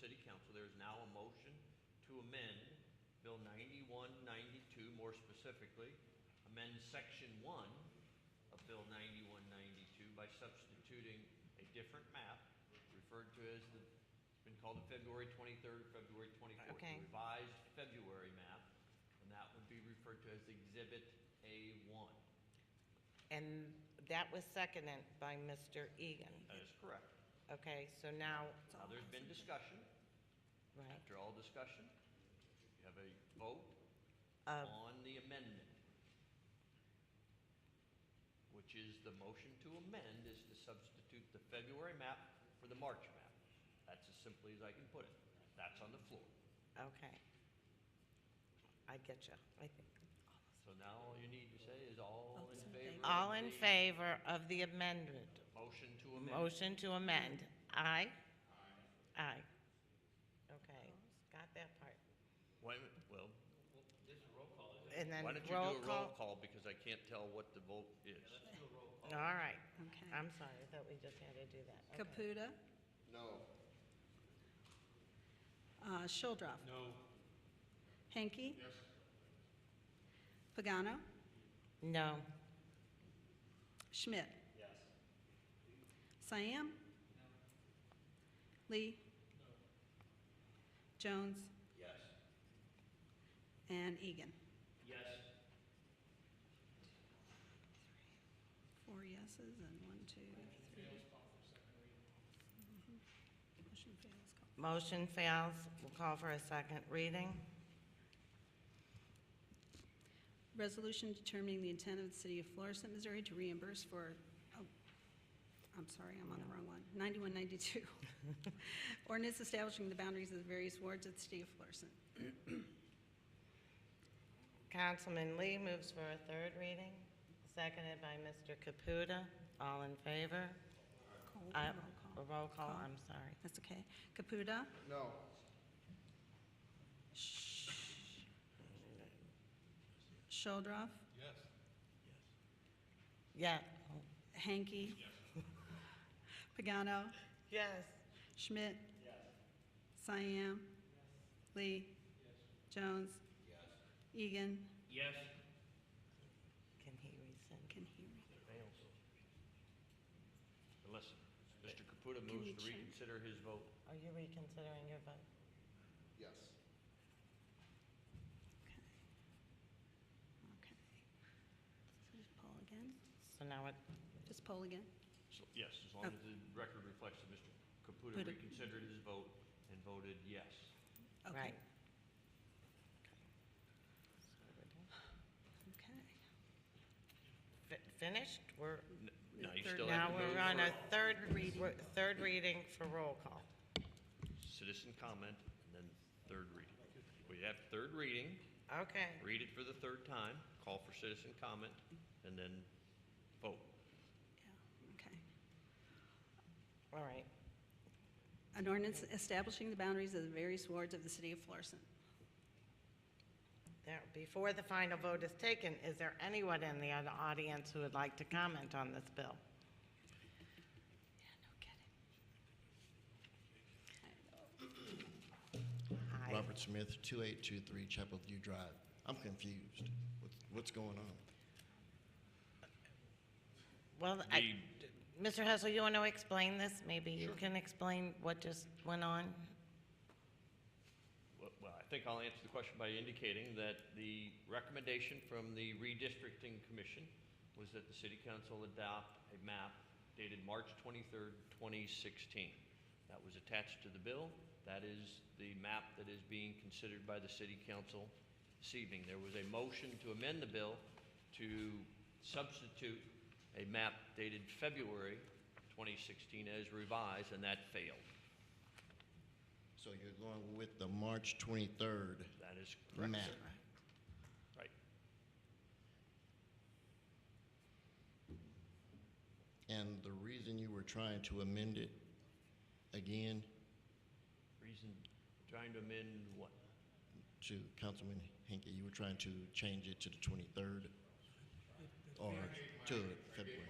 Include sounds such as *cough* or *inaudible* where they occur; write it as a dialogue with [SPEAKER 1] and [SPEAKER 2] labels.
[SPEAKER 1] city council, there is now a motion to amend Bill 9192, more specifically, amend Section 1 of Bill 9192 by substituting a different map referred to as the, it's been called the February 23rd or February 24th.
[SPEAKER 2] Okay.
[SPEAKER 1] the Revised February map, and that would be referred to as Exhibit A1.
[SPEAKER 2] And that was seconded by Mr. Egan.
[SPEAKER 1] That is correct.
[SPEAKER 2] Okay, so now,
[SPEAKER 1] Now, there's been discussion.
[SPEAKER 2] right,
[SPEAKER 1] After all discussion, you have a vote
[SPEAKER 2] Of-
[SPEAKER 1] on the amendment, which is the motion to amend is to substitute the February map for the March map. That's as simply as I can put it. That's on the floor.
[SPEAKER 2] okay. I get you, I think.
[SPEAKER 1] So now all you need to say is all in favor. of
[SPEAKER 2] All in
[SPEAKER 1] the
[SPEAKER 2] favor of the amendment?
[SPEAKER 1] Motion to amend.
[SPEAKER 2] Motion to amend. Aye? Aye. Okay, got that part.
[SPEAKER 1] Wait a minute, well,
[SPEAKER 2] And then
[SPEAKER 1] why don't you do
[SPEAKER 2] roll
[SPEAKER 1] a roll call
[SPEAKER 2] call.
[SPEAKER 1] because I can't tell what the vote is.
[SPEAKER 2] All right.
[SPEAKER 3] Okay.
[SPEAKER 2] I'm sorry, I thought we just had to do that. Okay.
[SPEAKER 3] Caputa. No. Shuldroff. No. Hanky. Yes. Pagano.
[SPEAKER 2] No.
[SPEAKER 3] Schmidt. Yes. Siam. No. Lee. Jones.
[SPEAKER 1] Yes.
[SPEAKER 3] And Egan.
[SPEAKER 1] Yes.
[SPEAKER 3] Four yeses and one, two, three. Mhm. Motion fails. Call.
[SPEAKER 2] Motion fails. We'll call for a second reading.
[SPEAKER 3] Resolution determining the intent of the city of Florissant, Missouri to reimburse for, oh, I'm sorry, I'm on the wrong one,
[SPEAKER 2] *laughs*
[SPEAKER 3] 9192. Ordinance establishing the boundaries of the various wards of the city of Florissant.
[SPEAKER 2] Councilman Lee moves for a third reading, seconded by Mr. Caputa. All in favor?
[SPEAKER 3] Call-
[SPEAKER 2] Aye.
[SPEAKER 3] roll call.
[SPEAKER 2] A roll call, I'm sorry.
[SPEAKER 3] That's okay. Caputa? No. Shuldroff?
[SPEAKER 2] Yeah. *laughs*
[SPEAKER 3] Hanky? Pagano?
[SPEAKER 2] Yes.
[SPEAKER 3] Schmidt? Yes. Siam? Lee? Jones? Egan?
[SPEAKER 1] Yes.
[SPEAKER 2] Can he rescind?
[SPEAKER 3] Can hear me.
[SPEAKER 1] Fails. And Listen, Mr. Caputa
[SPEAKER 3] Can we
[SPEAKER 1] moves to
[SPEAKER 3] check?
[SPEAKER 1] reconsider his vote.
[SPEAKER 2] Are you reconsidering your vote?
[SPEAKER 4] Yes.
[SPEAKER 3] Okay. Okay. So just poll again?
[SPEAKER 2] So now it,
[SPEAKER 3] Just poll again?
[SPEAKER 1] So, Yes, as long as the
[SPEAKER 2] Oh.
[SPEAKER 1] record reflects that Mr. Caputa
[SPEAKER 3] Caputa.
[SPEAKER 1] reconsidered his vote and voted yes.
[SPEAKER 3] Okay.
[SPEAKER 2] right.
[SPEAKER 3] Okay.
[SPEAKER 2] Fi- Finished? We're,
[SPEAKER 1] N- No, you still have
[SPEAKER 2] now
[SPEAKER 1] to
[SPEAKER 2] we're on a
[SPEAKER 1] move
[SPEAKER 2] third reading, third reading for roll call.
[SPEAKER 1] for citizen comment and then third reading. We have third reading,
[SPEAKER 2] Okay.
[SPEAKER 1] read it for the third time, call for citizen comment, and then vote.
[SPEAKER 3] Yeah, okay.
[SPEAKER 2] All right.
[SPEAKER 3] An ordinance establishing the boundaries of the various wards of the city of Florissant.
[SPEAKER 2] There, before the final vote is taken, is there anyone in the other audience who would like to comment on this bill?
[SPEAKER 3] Yeah, no kidding. I know.
[SPEAKER 2] Hi.
[SPEAKER 4] Robert Smith, 2823 Chapel View Drive. I'm confused. What's, what's going on?
[SPEAKER 2] Well, I, Mr. Hessel, you want to explain this? Maybe you can explain what just went on?
[SPEAKER 1] Well, well, I think I'll answer the question by indicating that the recommendation from the redistricting commission was that the city council adopt a map dated March 23rd, 2016. That was attached to the bill. That is the map that is being considered by the city council this evening. There was a motion to amend the bill to substitute a map dated February 2016 as revised, and that failed.
[SPEAKER 4] So you're going with the March 23rd
[SPEAKER 1] That is correct.
[SPEAKER 4] map?
[SPEAKER 1] sir. Right.
[SPEAKER 4] And the reason you were trying to amend it again
[SPEAKER 1] Reason, trying to amend what?
[SPEAKER 4] to Councilman Henke, you were trying to change it to the 23rd? Or to February?